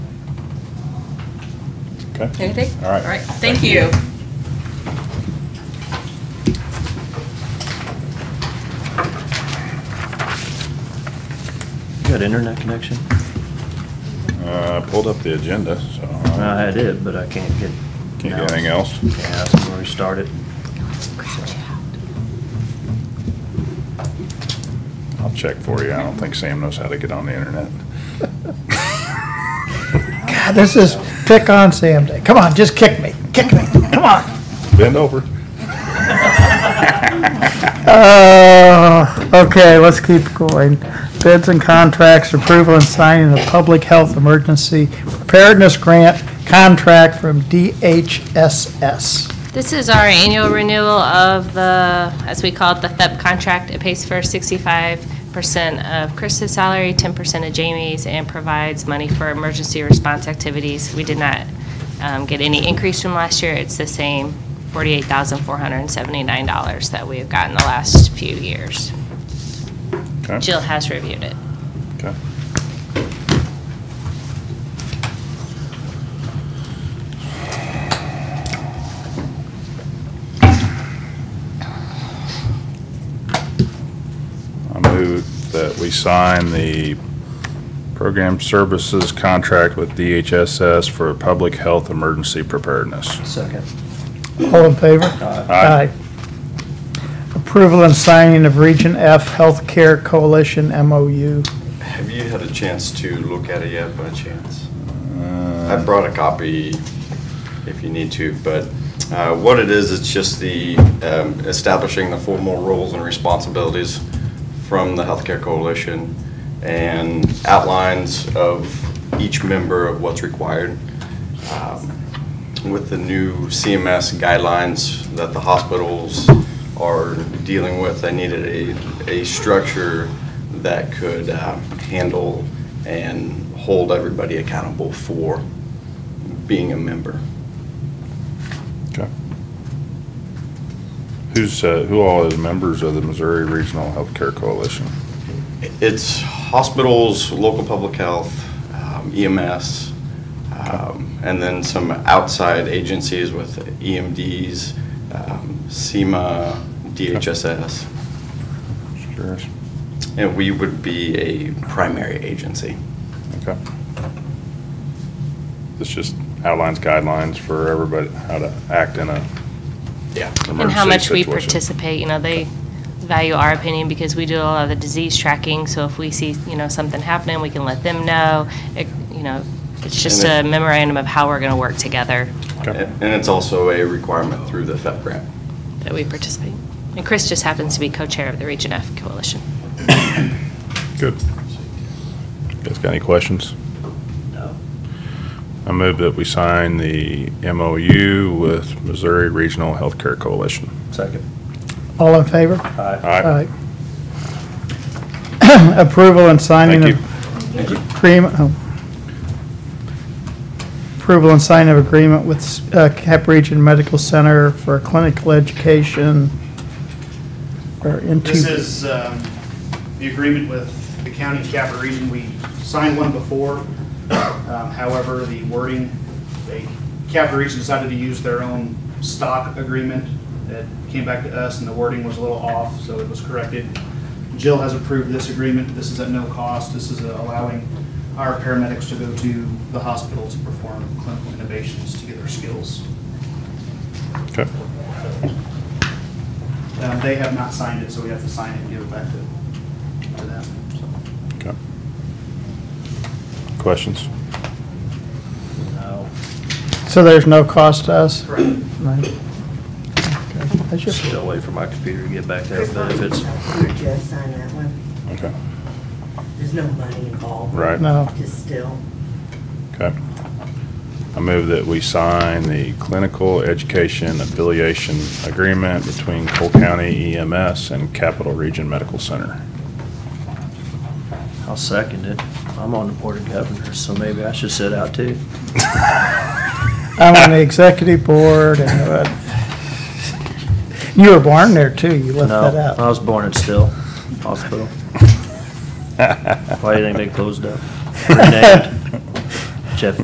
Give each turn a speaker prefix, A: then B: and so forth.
A: Okay.
B: Anything?
A: All right.
B: All right, thank you.
C: You got internet connection?
A: Uh, I pulled up the agenda, so. uh,
C: I had it, but I can't get.
A: Can't get anything else?
C: Yeah, that's where we started.
A: I'll check for you. I don't think Sam knows how to get on the internet.
D: God, Ah, this is pick on Sam Day. Come on, just kick me, kick me, come on.
A: Bend over.
D: Uh, okay, let's keep going. Bids and contracts, approval and signing of public health emergency preparedness grant contract from DHSS.
E: This is our annual renewal of the, as we call it, the THEP contract. It pays for 65% of Chris's salary, 10% of Jamie's, and provides money for emergency response activities. We did not um, get any increase from last year. It's the same $48,479 that we have gotten the last few years.
A: Okay.
E: Jill has reviewed it.
A: Okay. I move that we sign the program services contract with DHSS for public health emergency preparedness.
C: Second.
D: All in favor?
A: Aye.
D: Approval and signing of Region F Healthcare Coalition MOU.
F: Have you had a chance to look at it yet by chance? I
A: Uh,
F: brought a copy if you need to, but uh, what it is, it's just the um, establishing the formal roles and responsibilities from the Healthcare Coalition and outlines of each member of what's required. Um, With the new CMS guidelines that the hospitals are dealing with, they needed a, a structure that could um, handle and hold everybody accountable for being a member.
A: okay. Who's, uh, who all is members of the Missouri Regional Healthcare Coalition?
F: It's hospitals, local public health, um, EMS, um, and then some outside agencies with EMDs, um, SEMA, DHSS,
A: Just curious.
F: and we would be a primary agency.
A: Okay. This just outlines guidelines for everybody, how to act in a
F: Yeah.
A: emergency
E: And how much we
A: situation.
E: participate, you know, they value our opinion because we do a lot of the disease tracking, so if we see, you know, something happening, we can let them know. It- You know, it's just a
F: And it-
E: memorandum of how we're gonna work together
A: Okay.
F: And and it's also a requirement through the FEP grant.
E: that we participate. And Chris just happens to be co-chair of the Region F Coalition.
A: Good. Guys got any questions?
C: No.
A: I move that we sign the MOU with Missouri Regional Healthcare Coalition.
C: Second.
D: All in favor?
C: Aye.
A: Aye.
D: Aye. Approval and signing
A: Thank
D: of
A: you.
D: agreement, oh. approval and signing of agreement with uh, Cap Region Medical Center for clinical education. Or into.
G: This is um, the agreement with the county of Capper Region. We signed one before. Um, However, the wording, they, Capper Region decided to use their own stock agreement that came back to us, and the wording was a little off, so it was corrected. Jill has approved this agreement. This is at no cost. This is allowing our paramedics to go to the hospital to perform clinical innovations to get their skills.
A: Okay.
G: Um, They have not signed it, so we have to sign it and give it back to to them. so.
A: Okay. Questions?
C: No.
D: So there's no cost to us?
G: Correct.
D: Right. Okay. That's just-
C: Still wait for my computer to get back there, but if it's,
H: We're just sign that one.
A: Okay.
H: There's no money involved.
A: Right.
D: No.
H: Just still.
A: Okay. I move that we sign the clinical education affiliation agreement between Cole County EMS and Capital Region Medical Center.
C: I'll second it. I'm on the board of governors, so maybe I should sit out too.
D: I'm on the executive board and, uh, you were born there too, you left that
C: No,
D: out.
C: I was born in Still Hospital. Why do you think they closed up? Renamed.